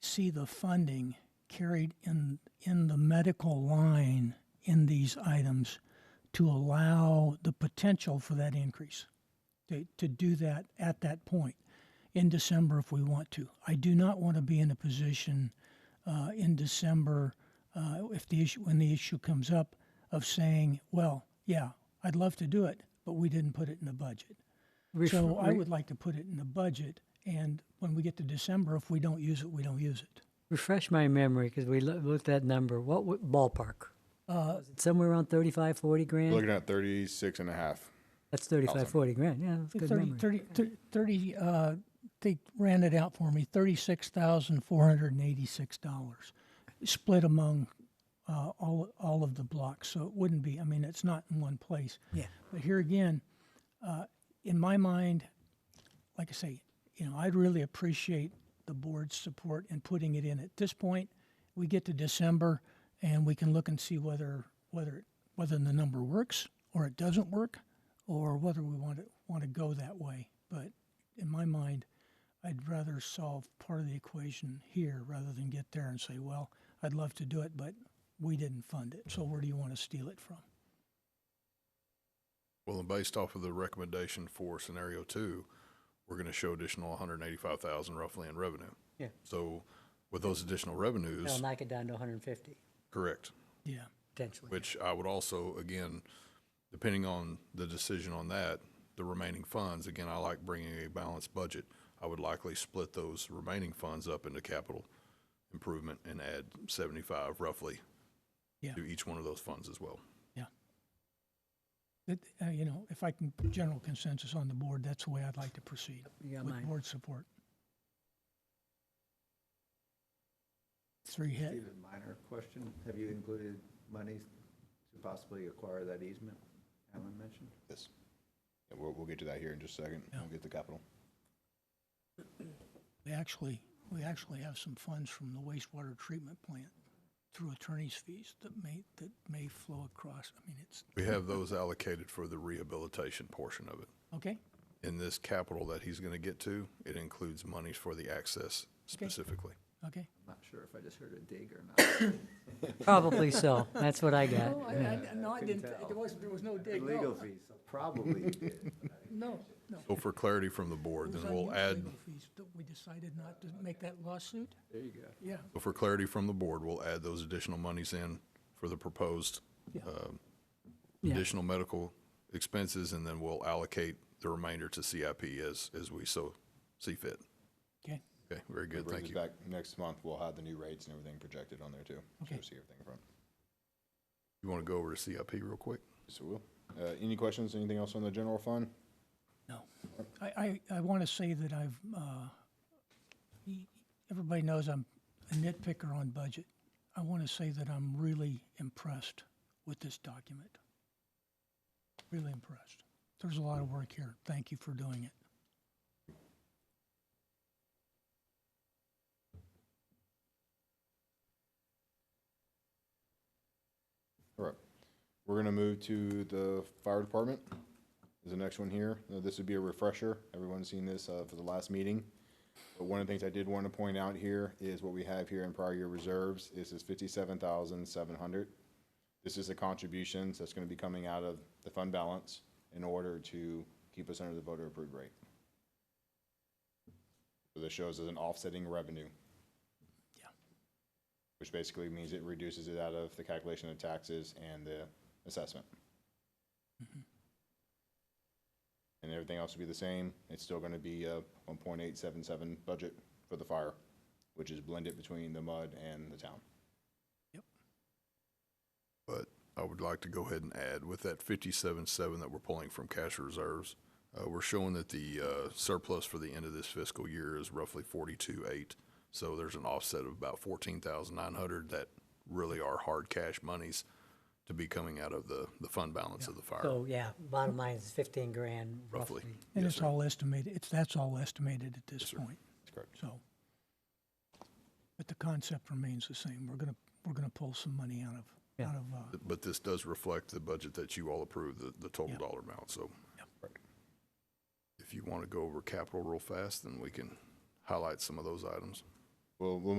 see the funding carried in, in the medical line in these items to allow the potential for that increase, to, to do that at that point in December if we want to. I do not want to be in a position uh, in December, uh, if the issue, when the issue comes up, of saying, well, yeah, I'd love to do it, but we didn't put it in the budget. Ref- So I re- would like to put it in the budget, and when we get to December, if we don't use it, we don't use it. refresh my memory because we loo- looked at that number. What w- ballpark? Uh, somewhere around 35, 40 grand. Looking at 36 and a half. that's 35, 40 grand. Yeah, that's good 30, memory. 30, thir- 30, uh, they ran it out for me, thirty-six thousand four hundred and eighty-six dollars, split among, uh, all, all of the blocks, so it wouldn't be, I mean, it's not in one place. Yeah. But here again, uh, in my mind, like I say, you know, I'd really appreciate the board's support in putting it in. At this point, we get to December and we can look and see whether, whether, whether the number works or it doesn't work or whether we want to, want to go that way. But in my mind, I'd rather solve part of the equation here rather than get there and say, well, I'd love to do it, but we didn't fund it. So where do you want to steal it from? Well, and based off of the recommendation for scenario two, we're gonna show additional one hundred and eighty-five thousand roughly in revenue. Yeah. So with those additional That'll revenues, knock it down to 150 correct, Yeah. potentially. which I would also, again, depending on the decision on that, the remaining funds, again, I like bringing a balanced budget. I would likely split those remaining funds up into capital improvement and add seventy-five roughly Yeah. to each one of those funds as well. That, uh, you know, if I can, general consensus on the board, that's the way I'd like to proceed You got with mine. board support. Three hit. Steve, a minor question. Have you included monies to possibly acquire that easement Alan mentioned? Yes. And we'll, we'll get to that here in just a second. Yeah. We'll get the capital. We actually, we actually have some funds from the wastewater treatment plant through attorney's fees that may, that may flow across. I mean, it's, We have those allocated for the rehabilitation portion of it. okay, in this capital that he's going to get to, it includes monies for the access specifically. okay. I'm not sure if I just heard a dig or not. Probably so. That's what I got. Oh, no, I couldn't didn't- tell. there wasn't, there was no Legal fees, so probably you did. No, no. So for clarity from the board, then we'll add, We decided not to make that lawsuit? There you go. Yeah. so for clarity from the board, we'll add those additional monies in for the proposed Yeah. um, Yeah. additional medical expenses, and then we'll allocate the remainder to CIP as, as we so see fit. Okay, Okay, very It good, brings thank us you. Back next month, we'll have the new rates and everything projected on there too. So Okay. we'll see everything in front. You want to go over to CIP real quick? So we'll, uh, any questions, anything else on the general fund? no. I, I, I want to say that I've, uh, e- everybody knows I'm a nitpicker on budget. I want to say that I'm really impressed with this document. Really impressed. There's a lot of work here. Thank you for doing it. All right. We're gonna move to the fire department. Is the next one here. Now, this would be a refresher. Everyone's seen this, uh, for the last meeting. But one of the things I did want to point out here is what we have here in prior year reserves is this fifty-seven thousand seven hundred. This is the contributions that's gonna be coming out of the fund balance in order to keep us under the voter approved rate. So this shows as an offsetting revenue. Yeah. Which basically means it reduces it out of the calculation of taxes and the assessment. Mm-hmm. And everything else will be the same. It's still gonna be a one point eight seven seven budget for the fire, which is blended between the mud and the town. But I would like to go ahead and add, with that fifty-seven seven that we're pulling from cash reserves, uh, we're showing that the, uh, surplus for the end of this fiscal year is roughly forty-two eight. So there's an offset of about fourteen thousand nine hundred that really are hard cash monies to be coming out of the, the fund balance of the fire, So yeah, bottom line is 15 grand roughly. And Yes, it's sir. all estimated, it's, that's all estimated at this point, That's correct. so. But the concept remains the same. We're gonna, we're gonna pull some money out of, Yeah. out of, uh, But this does reflect the budget that you all approved, the, the total Yeah. dollar amount, so. Yeah. If you want to go over capital real fast, then we can highlight some of those items. We'll, we'll